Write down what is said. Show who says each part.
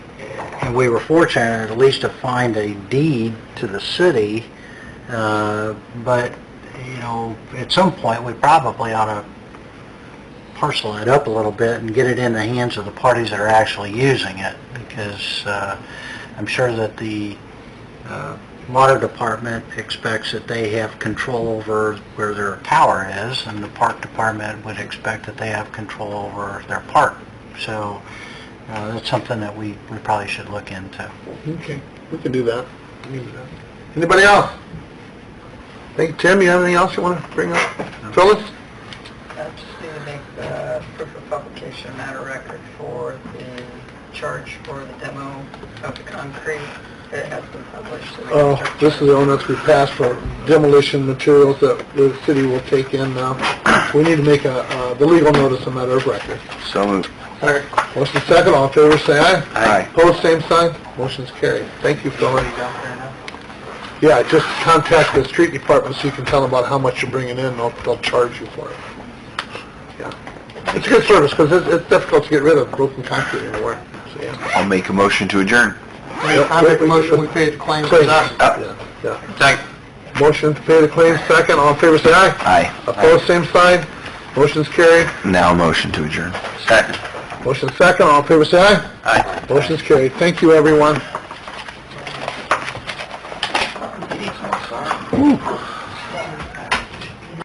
Speaker 1: And we were fortunate at least to find a deed to the city, uh, but, you know, at some point, we probably ought to parcel it up a little bit and get it in the hands of the parties that are actually using it, because uh, I'm sure that the uh, water department expects that they have control over where their tower is, and the park department would expect that they have control over their park. So uh, that's something that we, we probably should look into.
Speaker 2: Okay, we can do that. We can do that. Anybody else? Think, Tim, you have anything else you want to bring up? Phyllis?
Speaker 3: I just need to make the proof of publication matter record for the charge for the demo of the concrete that has been published. so we can
Speaker 2: Oh,
Speaker 3: start-
Speaker 2: this is the ordinance we passed for demolition materials that the city will take in now. We need to make a, uh, the legal notice a matter of record.
Speaker 4: So moved.
Speaker 2: Motion second, all in favor, say aye.
Speaker 4: Aye.
Speaker 2: Pose same sign, motion's carried. Thank you, Phyllis.
Speaker 3: Already done there now?
Speaker 2: Yeah, just contact the street department so you can tell them about how much you're bringing in, and they'll, they'll charge you for it. Yeah. It's a good service, because it's, it's difficult to get rid of broken concrete anywhere, so, yeah.
Speaker 4: I'll make a motion to adjourn.
Speaker 2: I make a motion, we pay the claims. Yeah, yeah. Motion to pay the claims, second, all in favor, say aye.
Speaker 4: Aye.
Speaker 2: Opposed, same sign, motion's carried.
Speaker 4: Now motion to adjourn. Second.
Speaker 2: Motion second, all in favor, say aye.
Speaker 4: Aye.
Speaker 2: Motion's carried. Thank you, everyone.